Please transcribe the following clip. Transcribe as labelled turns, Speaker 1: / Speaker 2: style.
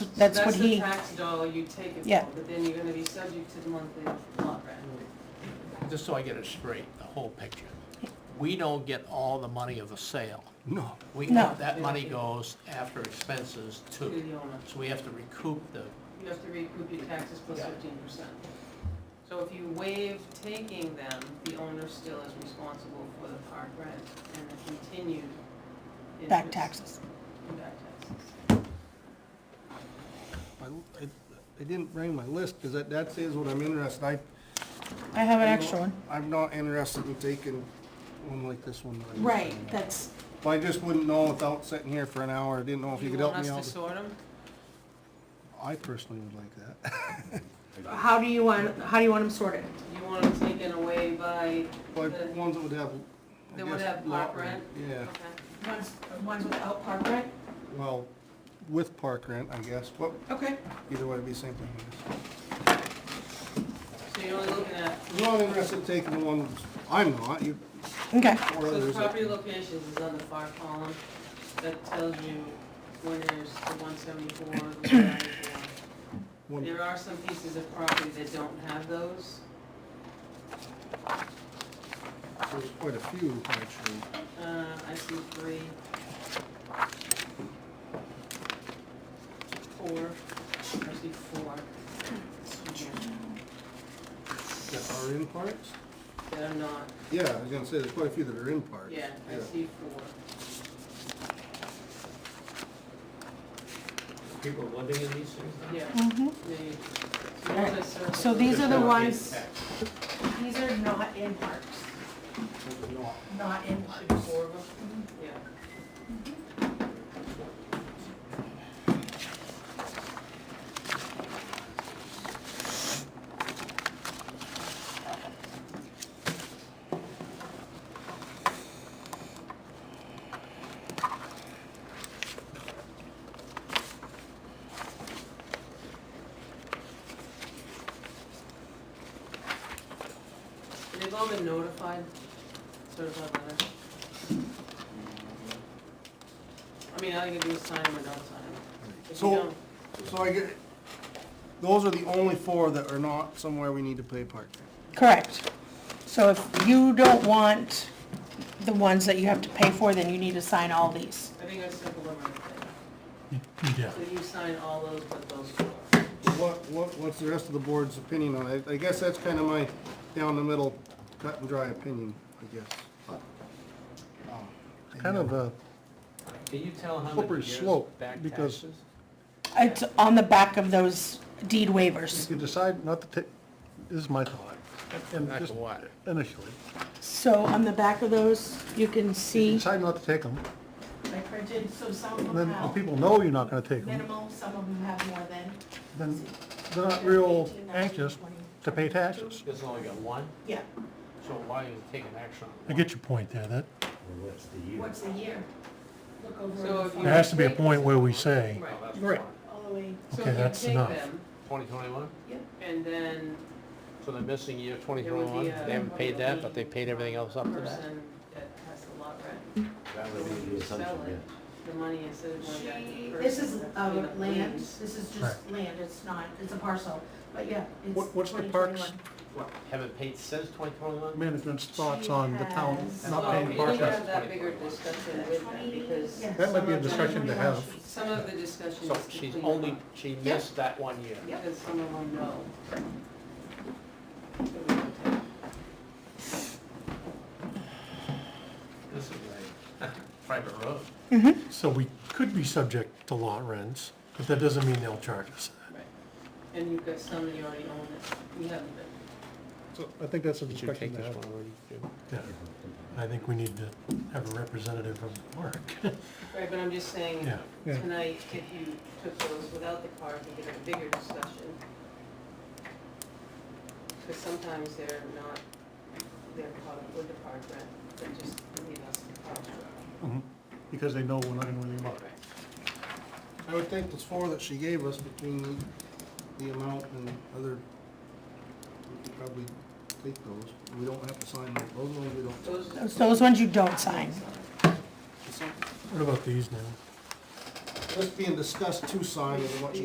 Speaker 1: That's what
Speaker 2: the
Speaker 1: he-
Speaker 2: tax dollar you take it
Speaker 1: Yeah.
Speaker 2: for, but then you're gonna be subject to the monthly lot rent.
Speaker 3: Just so I get it straight, the whole picture. We don't get all the money of the sale.
Speaker 4: No.
Speaker 3: We,
Speaker 1: No.
Speaker 3: that money goes after expenses
Speaker 2: To the
Speaker 3: too.
Speaker 2: owner.
Speaker 3: So we have to recoup the,
Speaker 2: You have to recoup your taxes plus
Speaker 3: Yeah.
Speaker 2: fifteen percent. So if you waive taking them, the owner still is responsible for the park rent and the continued
Speaker 1: back
Speaker 2: interest
Speaker 1: taxes.
Speaker 2: and Back taxes.
Speaker 4: I, I- I didn't bring my list, because that, that is what I'm interested, I.
Speaker 1: I have an extra one.
Speaker 4: I'm not interested in taking one like this one. that I-
Speaker 5: Right, that's,
Speaker 4: But I just wouldn't know without sitting here for an hour, I didn't know if you could help me
Speaker 2: You want
Speaker 4: out.
Speaker 2: us to sort them?
Speaker 4: I personally would like that.
Speaker 5: how do you want, how do you want them sorted?
Speaker 2: You want them taken away by
Speaker 4: Like,
Speaker 2: the,
Speaker 4: ones that would have. I
Speaker 2: That would
Speaker 4: guess,
Speaker 2: have park
Speaker 4: lot rent. Yeah,
Speaker 2: okay.
Speaker 5: Ones, ones without park rent?
Speaker 4: well, with park rent, I guess, but
Speaker 5: Okay.
Speaker 4: either way, it'd be the same thing, I guess.
Speaker 2: So you're only looking at,
Speaker 4: I'm not interested in taking the ones, I'm not, you,
Speaker 1: Okay,
Speaker 4: or
Speaker 2: so the
Speaker 4: others. that-
Speaker 2: property locations is on the far column. That tells you when there's the one seventy-four, the one ninety-four.
Speaker 4: one-
Speaker 2: There are some pieces of property that don't have those.
Speaker 4: There's quite a few, actually.
Speaker 2: Uh, I see three. Four, I see four
Speaker 4: That are in parks?
Speaker 2: that are not,
Speaker 4: Yeah, I was gonna say, there's quite a few that are in parks.
Speaker 2: yeah, I see four.
Speaker 3: people living in these things now.
Speaker 2: Yeah,
Speaker 5: Mm-hmm.
Speaker 1: mhm.
Speaker 2: they, so those are circles.
Speaker 5: So these are the
Speaker 3: Just not
Speaker 5: ones-
Speaker 3: getting taxed.
Speaker 5: These are not in parks,
Speaker 4: No,
Speaker 5: not in
Speaker 2: Should be four of them, yeah. They've all been notified, sort of a letter. I mean, all you can do is sign them or don't sign them. If you
Speaker 4: So,
Speaker 2: don't,
Speaker 4: so I get, those are the only four that are not somewhere we need to pay park.
Speaker 1: correct. So if you don't want the ones that you have to pay for, then you need to sign all these.
Speaker 2: I think I circled them right there. So you sign all those but those four.
Speaker 4: What, what, what's the rest of the board's opinion on it? I guess that's kind of my down the middle, cut and dry opinion, I guess. Um, It's kind of a,
Speaker 6: Can you tell how
Speaker 4: Slippery
Speaker 6: many years
Speaker 4: slope,
Speaker 6: back
Speaker 4: because-
Speaker 1: It's
Speaker 6: taxes?
Speaker 1: on the back of those deed waivers.
Speaker 7: You decide not to take, this is my thought, and
Speaker 3: Back
Speaker 7: just
Speaker 3: to what?
Speaker 7: initially,
Speaker 1: So on the back of those, you can
Speaker 7: you
Speaker 1: see,
Speaker 7: decide not to take them,
Speaker 5: I printed, so some of
Speaker 7: and then
Speaker 5: them
Speaker 7: the
Speaker 5: have
Speaker 7: people know you're not gonna take them,
Speaker 5: minimal, some of them have more than.
Speaker 7: then they're not real anxious to pay taxes.
Speaker 3: Just only got one,
Speaker 5: Yeah,
Speaker 3: so why are you taking action on
Speaker 7: I
Speaker 3: one?
Speaker 7: get your point there, that,
Speaker 5: what's the year? Look
Speaker 2: So
Speaker 5: over
Speaker 2: if
Speaker 5: the
Speaker 2: you-
Speaker 7: there has to be a point where we say,
Speaker 2: Right.
Speaker 3: Oh, that's
Speaker 4: Right.
Speaker 3: one.
Speaker 5: all the way.
Speaker 2: So
Speaker 7: Okay,
Speaker 2: if you
Speaker 7: that's
Speaker 2: take
Speaker 7: enough.
Speaker 2: them,
Speaker 3: 2021?
Speaker 2: And then
Speaker 3: So they're missing year
Speaker 2: there would
Speaker 3: 2021?
Speaker 2: be uh,
Speaker 3: They
Speaker 2: a.
Speaker 3: haven't paid that, but they paid everything else up to that?
Speaker 2: Person that has a lot rent.
Speaker 6: That
Speaker 2: So when you sell it, the money instead of going back to
Speaker 5: She,
Speaker 2: the person.
Speaker 5: this is,
Speaker 2: that's
Speaker 5: uh,
Speaker 2: been a
Speaker 5: land,
Speaker 2: lease.
Speaker 5: this is just land, it's not, it's a parcel, but yeah, it's
Speaker 4: What- what's the parks?
Speaker 5: 2021.
Speaker 3: What, haven't paid since 2021?
Speaker 7: management's thoughts on the town not
Speaker 2: Well,
Speaker 7: paying
Speaker 2: we
Speaker 7: park
Speaker 2: need to
Speaker 7: rent.
Speaker 2: have that bigger discussion with them because
Speaker 5: Yeah,
Speaker 7: That might
Speaker 2: some
Speaker 7: be a
Speaker 2: of the-
Speaker 7: discussion to have.
Speaker 2: Some of the discussion
Speaker 3: So
Speaker 2: is to
Speaker 3: she's
Speaker 2: clean
Speaker 3: only,
Speaker 2: up,
Speaker 3: she missed that one year.
Speaker 2: Because some of them know.
Speaker 3: This is a private road.
Speaker 7: So we could be subject to lot rents, but that doesn't mean they'll charge us.
Speaker 2: And you've got some that you already own that we haven't been.
Speaker 7: So I think that's a
Speaker 3: Did you take
Speaker 7: discussion to
Speaker 3: this
Speaker 7: have.
Speaker 3: one already, Jim?
Speaker 7: Yeah. I think we need to have a representative of the park,
Speaker 2: Right, but I'm just saying,
Speaker 7: yeah.
Speaker 4: Yeah.
Speaker 2: tonight, if you took those without the park, you get a bigger discussion. Because sometimes they're not, they're caught up with the park rent, they just leave us the park rent.
Speaker 7: Mm-hmm. Because they know we're not gonna really about it.
Speaker 4: I would think those four that she gave us between the- the amount and other, we could probably take those. We don't have to sign them. Those ones we don't.
Speaker 2: Those,
Speaker 1: those, those ones you don't sign.
Speaker 4: It's not-
Speaker 7: What about these now?
Speaker 4: Just being discussed to sign is what